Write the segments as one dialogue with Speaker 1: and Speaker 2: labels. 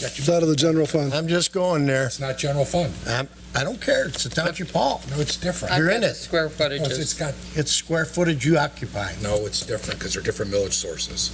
Speaker 1: Got
Speaker 2: It's
Speaker 1: your-
Speaker 2: out of the general fund.
Speaker 3: I'm just going there.
Speaker 1: It's not general fund.
Speaker 3: I don't care. It's the township hall.
Speaker 1: No, it's different.
Speaker 3: You're
Speaker 4: I've
Speaker 3: in
Speaker 4: got the
Speaker 3: it.
Speaker 4: Square
Speaker 1: No, It's
Speaker 4: footages.
Speaker 1: it's got,
Speaker 3: It's square footage you occupy.
Speaker 1: no, it's different because they're different millage sources.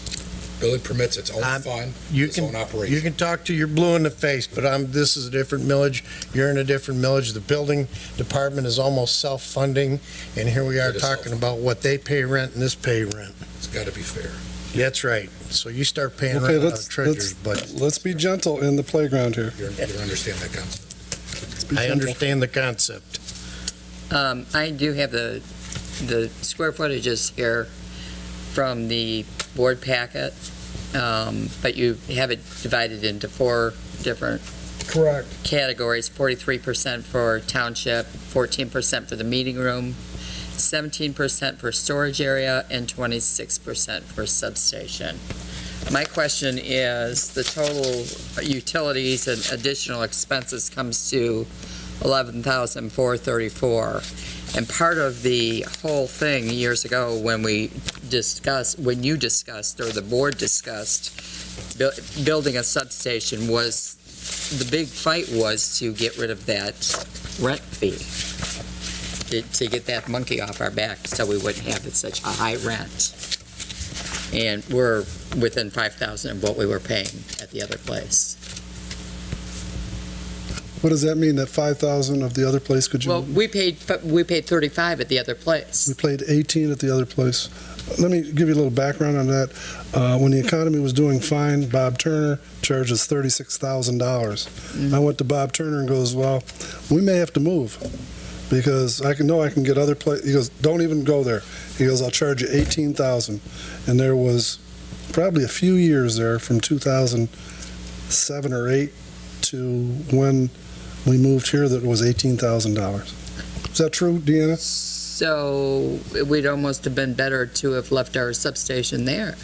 Speaker 1: Village permits its own
Speaker 3: I'm-
Speaker 1: fund,
Speaker 3: You
Speaker 1: its
Speaker 3: Um, can,
Speaker 1: own
Speaker 3: you
Speaker 1: operation.
Speaker 3: can talk to, you're blue in the face, but I'm, this is a different millage. You're in a different millage. The building department is almost self-funding, and here we are
Speaker 1: It is
Speaker 3: talking about what they pay rent and this pay rent.
Speaker 1: It's got to be fair.
Speaker 3: That's right. So you start paying
Speaker 2: Okay,
Speaker 3: rent out
Speaker 2: let's,
Speaker 3: of treasurer's
Speaker 2: let's,
Speaker 3: budget.
Speaker 2: let's be gentle in the playground here.
Speaker 1: You're- You don't understand that concept.
Speaker 2: Let's be
Speaker 3: I
Speaker 2: gentle.
Speaker 3: understand the concept.
Speaker 4: Um, I do have the, the square footages here from the board packet, um, but you have it divided into four different
Speaker 3: Correct.
Speaker 4: categories, forty-three percent for township, fourteen percent for the meeting room, seventeen percent for storage area, and twenty-six percent for substation. My question is, the total utilities and additional expenses comes to eleven thousand four thirty-four. And part of the whole thing years ago, when we discussed, when you discussed, or the board discussed, bu- building a substation was the big fight was to get rid of that rent fee, to, to get that monkey off our back, so we wouldn't have such a high rent. And we're within five thousand of what we were paying at the other place.
Speaker 2: What does that mean, that 5,000 of the other place, could
Speaker 4: Well,
Speaker 2: you,
Speaker 4: we paid, fi- we paid thirty-five at the other
Speaker 2: we
Speaker 4: place.
Speaker 2: played 18 at the other place. Let me give you a little background on that. Uh, When the economy was doing fine, Bob Turner charges $36,000. I went to Bob Turner and goes, well, we may have to move because I can, know I can get other pla, he goes, don't even go there. He goes, I'll charge you 18,000. And there was probably a few years there from 2007 or 8 to when we moved here that it was $18,000. Is that true, Deanna?
Speaker 4: So we'd almost have been better to have left our substation there,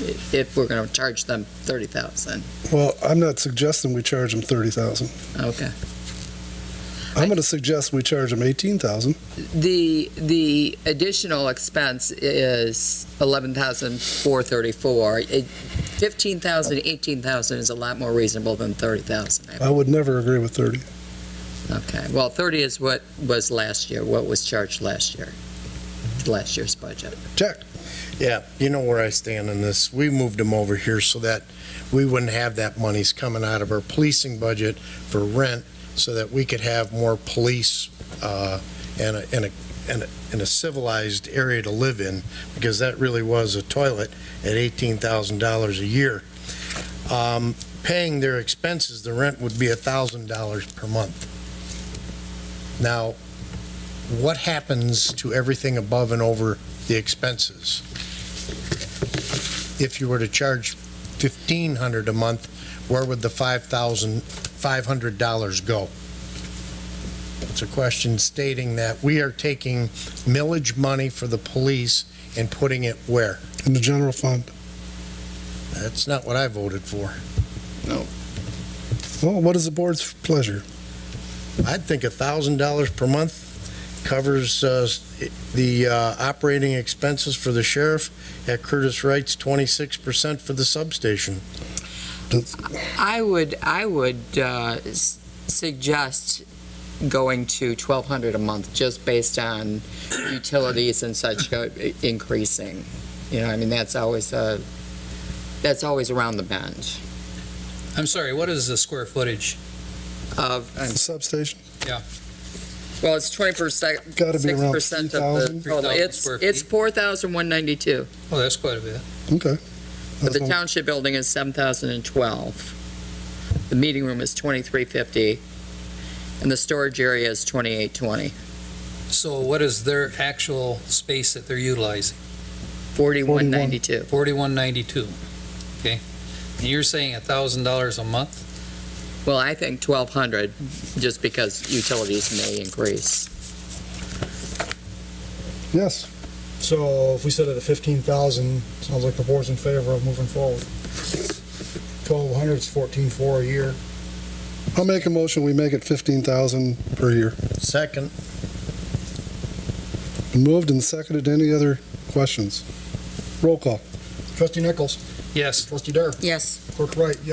Speaker 4: i- if we're gonna charge them thirty thousand,
Speaker 2: Well, I'm not suggesting we charge them thirty thousand.
Speaker 4: okay?
Speaker 2: I'm going to suggest we charge them eighteen thousand.
Speaker 4: The, the additional expense is 11,434. It- 15,000, 18,000 is a lot more reasonable than 30,000. I-
Speaker 2: I would never agree with thirty.
Speaker 4: Okay, well, 30 is what was last year, what was charged last year, last year's budget.
Speaker 2: Jack,
Speaker 3: Yeah, you know where I stand on this. We moved them over here so that we wouldn't have that money's coming out of our policing budget for rent so that we could have more police uh, and a, and a, and a- and a civilized area to live in because that really was a toilet at $18,000 a year. Um, Paying their expenses, the rent would be $1,000 per month. Now, what happens to everything above and over the expenses? If you were to charge fifteen hundred a month, where would the five thousand, five hundred dollars go? It's a question stating that we are taking millage money for the police and putting it where?
Speaker 2: in the general fund.
Speaker 3: That's not what I voted for.
Speaker 2: Well, what is the board's pleasure?
Speaker 3: I'd think a thousand dollars per month covers uh, the uh, operating expenses for the sheriff at Curtis Wright's twenty-six percent for the substation.
Speaker 4: I would, I would uh, s- suggest going to 1,200 a month, just based on utilities and such go- i- increasing. You know, I mean, that's always, uh, that's always around the bend
Speaker 5: I'm sorry, what is the square footage?
Speaker 4: of,
Speaker 2: The substation
Speaker 4: well, it's 20%,
Speaker 2: got to be around three
Speaker 4: 6% of the
Speaker 2: thousand.
Speaker 4: total.
Speaker 5: 3,000
Speaker 4: It's,
Speaker 5: square
Speaker 4: it's
Speaker 5: feet.
Speaker 4: 4,192,
Speaker 5: Oh, that's quite a bit.
Speaker 2: Okay.
Speaker 4: but the
Speaker 2: That's my-
Speaker 4: township building is 7,012. The meeting room is 2,350, and the storage area is 2,820,
Speaker 5: So what is their actual space that they're utilizing?
Speaker 4: 4,192.
Speaker 5: Forty-one ninety-two, okay? And you're saying a thousand dollars a month?
Speaker 4: Well, I think twelve hundred, just because utilities may increase.
Speaker 2: Yes.
Speaker 6: So if we set it at fifteen thousand, sounds like the board's in favor of moving forward. Twelve hundred is fourteen four a year.
Speaker 2: I'll make a motion. We make it fifteen thousand per year.
Speaker 3: Second,
Speaker 2: Moved and seconded. Any other questions? Roll call.
Speaker 6: Trustee Nichols,
Speaker 5: Yes.
Speaker 6: trustee Dare,
Speaker 4: Yes.
Speaker 6: clerk Wright, yes.